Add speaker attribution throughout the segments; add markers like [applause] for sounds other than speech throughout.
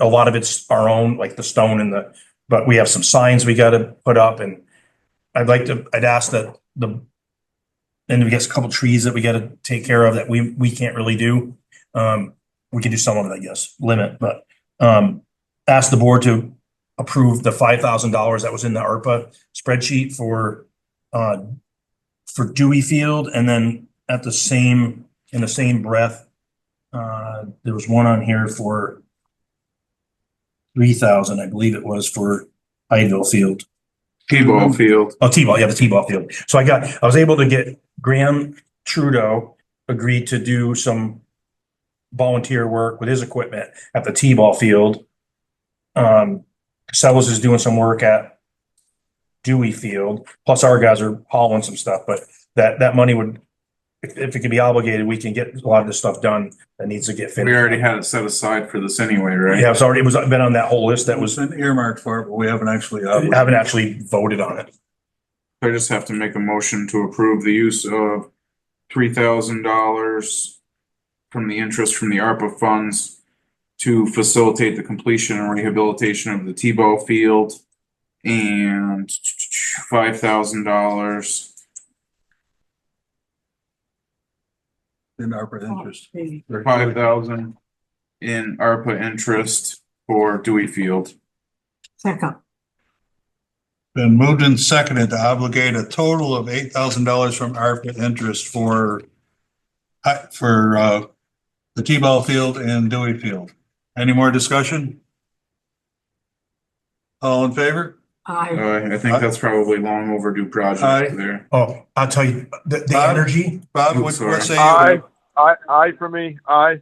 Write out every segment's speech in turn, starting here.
Speaker 1: A lot of it's our own, like the stone and the, but we have some signs we gotta put up and I'd like to, I'd ask that the and we got a couple trees that we gotta take care of that we, we can't really do. Um, we can do some of it, I guess, limit, but um, ask the board to approve the five thousand dollars that was in the ARPA spreadsheet for uh, for Dewey Field and then at the same, in the same breath, uh, there was one on here for three thousand, I believe it was for Ideal Field.
Speaker 2: T-ball field.
Speaker 1: Oh, T-ball, yeah, the T-ball field. So I got, I was able to get Graham Trudeau agreed to do some volunteer work with his equipment at the T-ball field. Um, Sellers is doing some work at Dewey Field, plus our guys are hauling some stuff, but that, that money would, if, if it could be obligated, we can get a lot of this stuff done that needs to get
Speaker 2: We
Speaker 1: finished.
Speaker 2: already had it set aside for this anyway, right?
Speaker 1: Yeah, it's already, it was, been on that whole list that was, uh,
Speaker 3: been earmarked for it, but we haven't actually.
Speaker 1: haven't actually voted on it.
Speaker 2: I just have to make a motion to approve the use of three thousand dollars from the interest from the ARPA funds to facilitate the completion and rehabilitation of the T-ball field and five thousand dollars
Speaker 3: In ARPA interest.
Speaker 2: five thousand in ARPA interest for Dewey Field.
Speaker 4: Second,
Speaker 3: Been moved and seconded to obligate a total of eight thousand dollars from ARPA interest for uh, for uh, the T-ball field and Dewey Field. Any more discussion? All in favor?
Speaker 4: I,
Speaker 2: Uh, I think that's probably long overdue
Speaker 3: Aye.
Speaker 2: project there.
Speaker 1: Oh, I'll tell you, the, the
Speaker 3: Bob?
Speaker 1: energy,
Speaker 3: Bob,
Speaker 2: I'm
Speaker 3: what
Speaker 2: sorry.
Speaker 3: what say
Speaker 5: Aye,
Speaker 3: you?
Speaker 5: aye, aye for me, aye.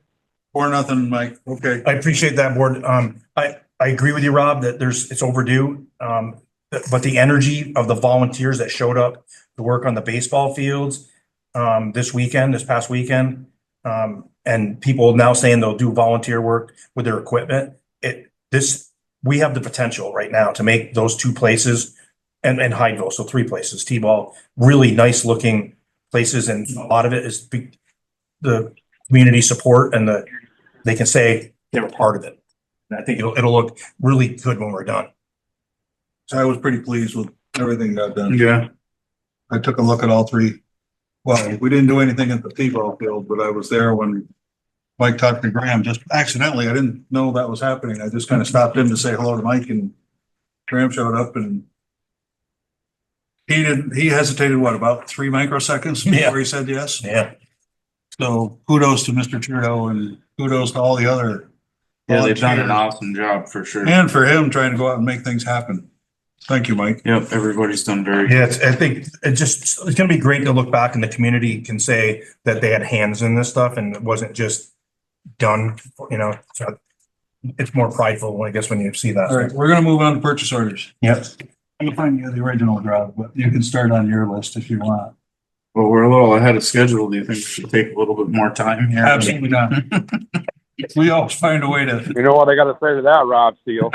Speaker 3: Four, nothing, Mike. Okay.
Speaker 1: I appreciate that board. Um, I, I agree with you, Rob, that there's, it's overdue. Um, but- but the energy of the volunteers that showed up to work on the baseball fields, um, this weekend, this past weekend, um, and people now saying they'll do volunteer work with their equipment. It, this, we have the potential right now to make those two places and, and Hydeville, so three places, T-ball, really nice looking places and a lot of it is be- the community support and the, they can say they were part of it. And I think it'll, it'll look really good when we're done.
Speaker 3: So I was pretty pleased with everything I've done.
Speaker 2: Yeah.
Speaker 3: I took a look at all three. Well, we didn't do anything at the T-ball field, but I was there when Mike talked to Graham, just accidentally. I didn't know that was happening. I just kind of stopped in to say hello to Mike and Graham showed up and he didn't, he hesitated, what, about three microseconds
Speaker 1: Yeah.
Speaker 3: before he said yes?
Speaker 1: Yeah.
Speaker 3: So kudos to Mr. Trudeau and kudos to all the other.
Speaker 2: Yeah, they've done an
Speaker 3: volunteers.
Speaker 2: awesome job for sure.
Speaker 3: And for him trying to go out and make things happen. Thank you, Mike.
Speaker 2: Yep, everybody's done very.
Speaker 1: Yeah, it's, I think it just, it's gonna be great to look back and the community can say that they had hands in this stuff and it wasn't just done, you know, so it's more prideful, I guess, when you see
Speaker 3: All right,
Speaker 1: that.
Speaker 3: we're gonna move on to purchase orders.
Speaker 1: Yep.
Speaker 3: You'll find you the original draft, but you can start on your list if you want.
Speaker 2: Well, we're a little ahead of schedule. Do you think we should take a little bit more time here?
Speaker 3: not.
Speaker 2: [laughs]
Speaker 3: We always find a way to.
Speaker 5: You know what I gotta say to that, Rob Steele?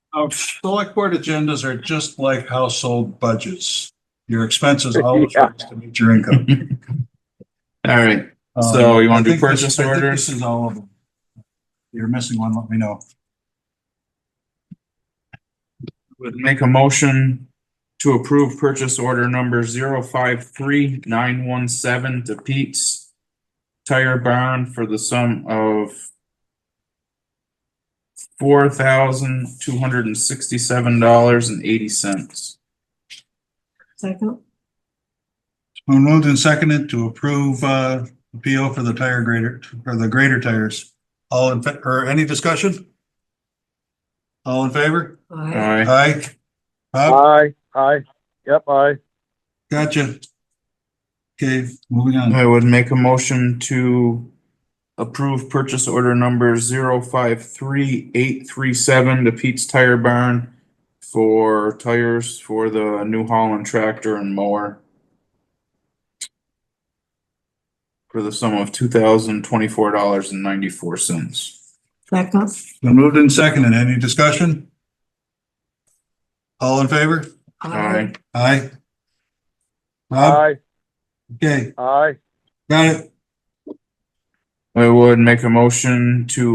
Speaker 1: [laughs]
Speaker 3: Our Select board agendas are just like household budgets.
Speaker 2: [laughs]
Speaker 3: Your expenses always
Speaker 5: Yeah.
Speaker 3: rise to meet your income.
Speaker 2: All right,
Speaker 3: Um,
Speaker 2: So you wanna
Speaker 3: I
Speaker 2: do
Speaker 3: think this-
Speaker 2: purchase
Speaker 3: I think
Speaker 2: orders?
Speaker 3: This is all of them. If You're missing one, let me know.
Speaker 2: would make a motion to approve purchase order number zero five three nine one seven to Pete's Tire Barn for the sum of four thousand two hundred and sixty-seven dollars and eighty cents.
Speaker 4: second,
Speaker 3: Been Moved and seconded to approve, uh, the PO for the tire grader, for the grader tires. All in, fa- or any discussion? All in favor?
Speaker 4: I,
Speaker 2: Alright,
Speaker 3: Aye. Bob,
Speaker 5: Aye, aye, yep, aye.
Speaker 3: gotcha. Okay, moving on.
Speaker 2: I would make a motion to approve purchase order number zero five three eight three seven to Pete's Tire Barn for tires for the New Holland tractor and mower for the sum of two thousand twenty-four dollars and ninety-four cents.
Speaker 4: second,
Speaker 3: Been moved and seconded. Any discussion? All in favor?
Speaker 4: I,
Speaker 3: Aye. Bob,
Speaker 5: Aye,
Speaker 3: okay,
Speaker 5: aye.
Speaker 3: got it.
Speaker 2: I would make a motion to